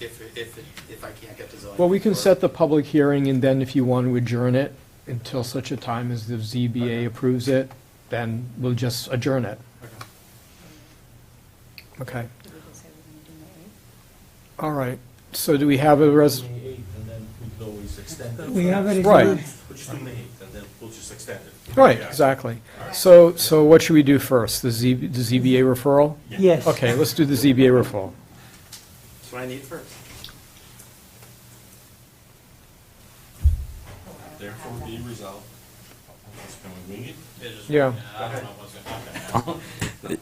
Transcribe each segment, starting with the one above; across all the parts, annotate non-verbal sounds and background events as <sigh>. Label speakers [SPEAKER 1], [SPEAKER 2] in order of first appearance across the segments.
[SPEAKER 1] if, if, if I can't get the zoning.
[SPEAKER 2] Well, we can
[SPEAKER 1] board.
[SPEAKER 2] set the public hearing, and then if you want to adjourn it until such a time as the ZBA approves it, then we'll just adjourn it.
[SPEAKER 1] Okay.
[SPEAKER 2] Okay.
[SPEAKER 3] We can say we're gonna do that,
[SPEAKER 2] All right. So do we have a res,
[SPEAKER 4] Eighth, and then we could always extend it.
[SPEAKER 5] We have it.
[SPEAKER 2] Right.
[SPEAKER 4] We'll just do May eighth, and then we'll just extend it.
[SPEAKER 2] right,
[SPEAKER 4] Yeah.
[SPEAKER 2] exactly. So, so what should we do first? The Z, the ZBA referral?
[SPEAKER 4] Yeah.
[SPEAKER 5] Yes.
[SPEAKER 2] Okay, let's do the ZBA referral.
[SPEAKER 1] That's what I need first.
[SPEAKER 3] right?
[SPEAKER 4] Therefore be resolved. Can we wing it?
[SPEAKER 2] Yeah.
[SPEAKER 4] I don't know what's gonna happen.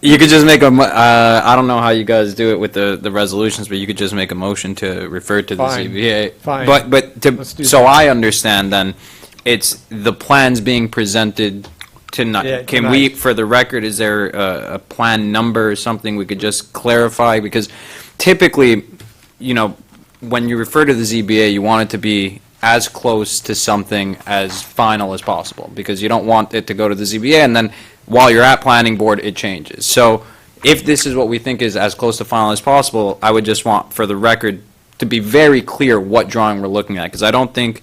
[SPEAKER 6] You could just make a, mo- uh, I don't know how you guys do it with the, the resolutions, but you could just make a motion to refer to the
[SPEAKER 2] Fine.
[SPEAKER 6] ZBA.
[SPEAKER 2] Fine.
[SPEAKER 6] But, but, to-
[SPEAKER 2] Let's do
[SPEAKER 6] so
[SPEAKER 2] that.
[SPEAKER 6] I understand then, it's the plans being presented
[SPEAKER 2] Yeah,
[SPEAKER 6] tonight. Can we,
[SPEAKER 2] tonight.
[SPEAKER 6] for the record, is there a, a plan number or something we could just clarify? Because typically, you know, when you refer to the ZBA, you want it to be as close to something as final as possible, because you don't want it to go to the ZBA, and then while you're at planning board, it changes. So if this is what we think is as close to final as possible, I would just want, for the record, to be very clear what drawing we're looking at, because I don't think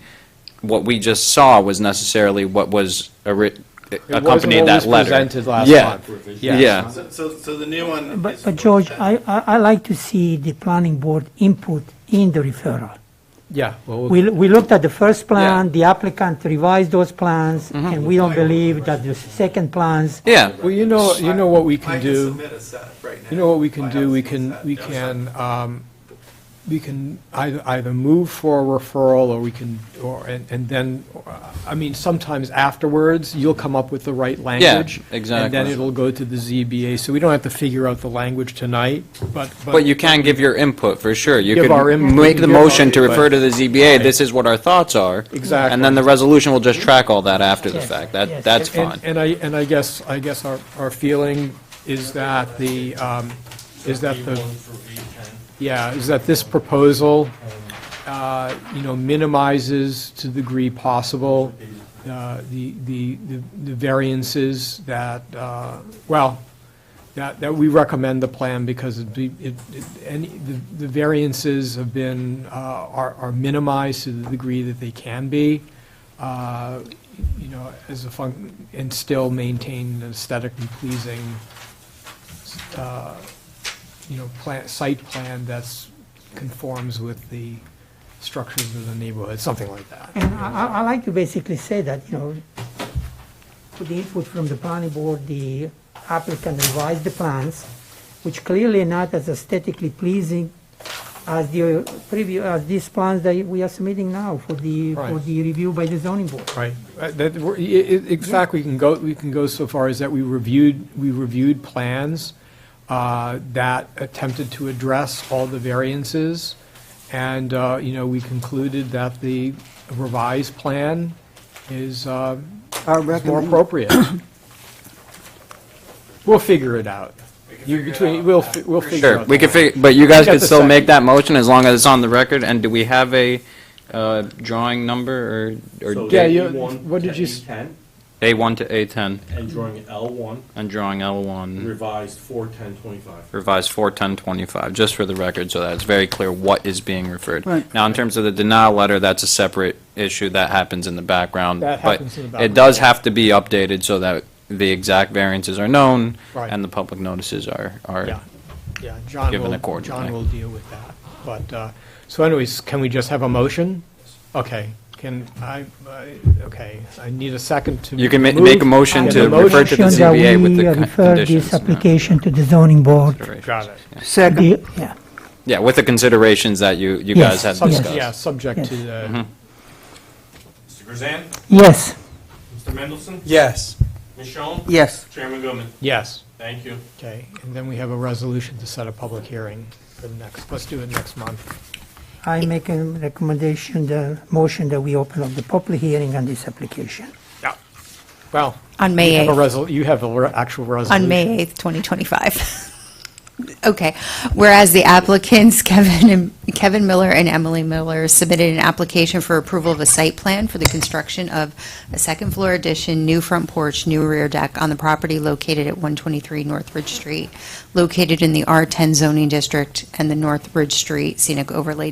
[SPEAKER 6] what we just saw was necessarily what was ori-
[SPEAKER 2] wasn't
[SPEAKER 6] accompanied
[SPEAKER 2] what
[SPEAKER 6] that
[SPEAKER 2] was
[SPEAKER 6] letter.
[SPEAKER 2] presented last
[SPEAKER 6] Yeah.
[SPEAKER 2] month.
[SPEAKER 6] Yeah.
[SPEAKER 2] Yeah.
[SPEAKER 1] So- So, so the new one.
[SPEAKER 5] But,
[SPEAKER 1] is-
[SPEAKER 5] but George, I, I, I like to see the planning board input in the referral.
[SPEAKER 2] Yeah, well, we'll-
[SPEAKER 5] We, we looked at the first plan,
[SPEAKER 6] Yeah.
[SPEAKER 5] the applicant revised those plans, and we don't believe that the second plans,
[SPEAKER 6] Yeah,
[SPEAKER 2] well, you know, you know what we can
[SPEAKER 1] I can
[SPEAKER 2] do?
[SPEAKER 1] submit a set right now.
[SPEAKER 2] You know what we can
[SPEAKER 1] I
[SPEAKER 2] do?
[SPEAKER 1] have
[SPEAKER 2] We
[SPEAKER 1] some
[SPEAKER 2] can,
[SPEAKER 1] set.
[SPEAKER 2] we
[SPEAKER 1] Yeah.
[SPEAKER 2] can, um, we can either, either move for a referral, or we can, or, and, and then, uh, I mean, sometimes afterwards, you'll come up with the right language. And then
[SPEAKER 6] exactly.
[SPEAKER 2] it'll go to the ZBA, so we don't have to figure out the language tonight, but.
[SPEAKER 6] but you can give your input, for sure. You
[SPEAKER 2] Give our input,
[SPEAKER 6] can make the
[SPEAKER 2] give our
[SPEAKER 6] motion to
[SPEAKER 2] input.
[SPEAKER 6] refer to the ZBA, this is what our thoughts are.
[SPEAKER 2] Exactly.
[SPEAKER 6] And then the resolution will just track all that after the
[SPEAKER 5] Yes,
[SPEAKER 6] fact.
[SPEAKER 5] yes.
[SPEAKER 6] That, that's
[SPEAKER 2] And-
[SPEAKER 6] fine.
[SPEAKER 2] And I, and I guess, I guess our, our feeling is that the, um, is that the.
[SPEAKER 4] A1 through A10.
[SPEAKER 2] Yeah, is that this proposal, uh, you know, minimizes to the degree possible uh, the the the the variances that, uh, well, that that we recommend the plan because it'd be- it, it- any, the the variances have been, uh, are are minimized to the degree that they can be, uh, you know, as a func, and still maintain an aesthetic and pleasing uh, you know, plan, site plan that's conforms with the structures of the neighborhood, something like that.
[SPEAKER 5] and I, I- I like to basically say that, you know, with the input from the planning board, the applicant revised the plans, which clearly not as aesthetically pleasing as the preview, as these plans that we are submitting now for the, for
[SPEAKER 2] Right.
[SPEAKER 5] the review by the zoning board.
[SPEAKER 2] Right. Uh, That, we're- i- i- in fact, we can go, we can go so far as that we reviewed, we reviewed plans uh, that attempted to address all the variances, and, uh, you know, we concluded that the revised plan is uh,
[SPEAKER 7] Our
[SPEAKER 2] is more
[SPEAKER 7] recommend,
[SPEAKER 2] appropriate. We'll figure it out. You between, we'll, fi- we'll figure
[SPEAKER 6] Sure,
[SPEAKER 2] out.
[SPEAKER 6] we
[SPEAKER 2] the
[SPEAKER 6] could
[SPEAKER 2] language.
[SPEAKER 6] figure, but you guys
[SPEAKER 2] got
[SPEAKER 6] could
[SPEAKER 2] the
[SPEAKER 6] still make
[SPEAKER 2] second.
[SPEAKER 6] that motion as long as it's on the record. And do we have a, uh, drawing number or,
[SPEAKER 4] So
[SPEAKER 6] or
[SPEAKER 2] Yeah,
[SPEAKER 4] A1
[SPEAKER 2] you- what did
[SPEAKER 4] to
[SPEAKER 2] you s-
[SPEAKER 4] A10,
[SPEAKER 6] A1 to A10
[SPEAKER 4] And drawing L1
[SPEAKER 6] and drawing
[SPEAKER 2] Mm.
[SPEAKER 6] L1
[SPEAKER 4] revised 41025.
[SPEAKER 6] revised 41025, just for the record, so that it's very clear what is being referred.
[SPEAKER 7] Right.
[SPEAKER 6] Now, in terms of the denial letter, that's a separate issue that happens in the background.
[SPEAKER 2] That
[SPEAKER 6] but
[SPEAKER 2] happens in the
[SPEAKER 6] It
[SPEAKER 2] background.
[SPEAKER 6] does have to be updated so that the exact variances are known
[SPEAKER 2] Right.
[SPEAKER 6] and the public notices are,
[SPEAKER 2] Yeah,
[SPEAKER 6] are,
[SPEAKER 2] yeah, John
[SPEAKER 6] Given
[SPEAKER 2] will,
[SPEAKER 6] accordingly.
[SPEAKER 2] John will deal with that. But, uh, so anyways, can we just have a motion? Okay, can I, I- okay, I need a second to.
[SPEAKER 6] you can ma- make a
[SPEAKER 2] move-
[SPEAKER 6] motion
[SPEAKER 2] get
[SPEAKER 6] to
[SPEAKER 2] the
[SPEAKER 6] refer to the
[SPEAKER 5] Motion that
[SPEAKER 6] ZBA with the
[SPEAKER 5] we
[SPEAKER 6] con-
[SPEAKER 5] refer
[SPEAKER 6] conditions.
[SPEAKER 5] this
[SPEAKER 6] yeah.
[SPEAKER 5] application to the zoning board.
[SPEAKER 2] Got it.
[SPEAKER 7] second,
[SPEAKER 5] The- yeah.
[SPEAKER 6] Yeah, with the considerations that you, you
[SPEAKER 5] Yes.
[SPEAKER 6] guys had
[SPEAKER 5] Some-
[SPEAKER 2] Sub-
[SPEAKER 6] discussed.
[SPEAKER 2] Yeah, subject to the,
[SPEAKER 6] Mm-hmm.
[SPEAKER 4] Mr. Grzan,
[SPEAKER 5] Yes,
[SPEAKER 4] Mr. Mendelson,
[SPEAKER 8] Yes.
[SPEAKER 4] Michonne,
[SPEAKER 7] yes.
[SPEAKER 4] Chairman Goodman,
[SPEAKER 2] yes,
[SPEAKER 4] thank you.
[SPEAKER 2] okay. And then we have a resolution to set a public hearing for the next, let's do it next month.
[SPEAKER 5] I make a recommendation, the motion that we open up the public hearing on this application.
[SPEAKER 2] Yeah. Well,
[SPEAKER 3] On
[SPEAKER 2] you
[SPEAKER 3] May
[SPEAKER 2] have a
[SPEAKER 3] 8th,
[SPEAKER 2] resol, you have a re- actual resolution.
[SPEAKER 3] on May 8th, 2025. <laughs> Okay. Whereas the applicants, Kevin, and- Kevin Miller and Emily Miller submitted an application for approval of a site plan for the construction of a second floor addition, new front porch, new rear deck on the property located at 123 North Ridge Street, located in the R10 zoning district and the North Ridge Street Scenic Overlay